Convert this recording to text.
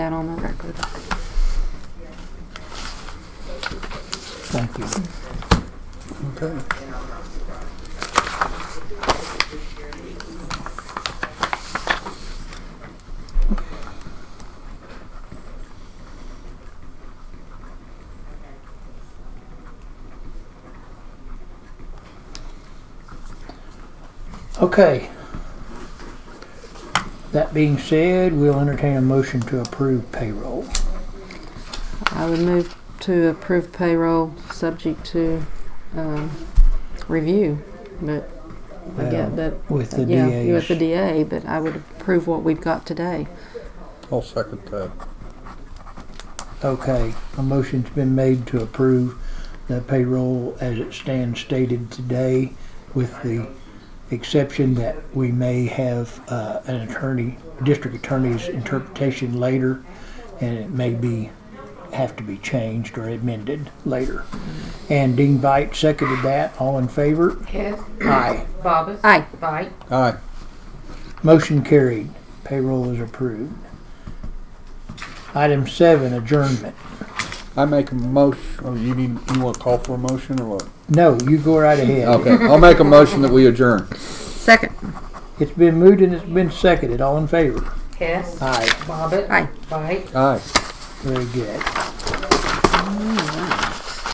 That on the record. Thank you. Okay. Okay. That being said, we'll entertain a motion to approve payroll. I would move to approve payroll subject to um, review, but I get um, that, With the yeah, with the DA, DA's. but I would approve what we've got today. I'll second that. Okay, a motion's been made to approve the payroll as it stands stated today with the exception that we may have uh, an attorney, district attorney's interpretation later, and it may be, have to be changed or amended later. And Dean Veit seconded that. All in favor? Hess, Aye. Bobbit, Aye. Bite, Aye. Motion carried. Payroll is approved. Item seven, adjournment. I make a motion, or you need, you want to call for a motion or what? No, you go right ahead. Okay, I'll make a motion that we adjourn. Second. It's been moved and it's been seconded. All in favor? Hess, Aye. Bobbit, Aye. Bite. Aye. Very good.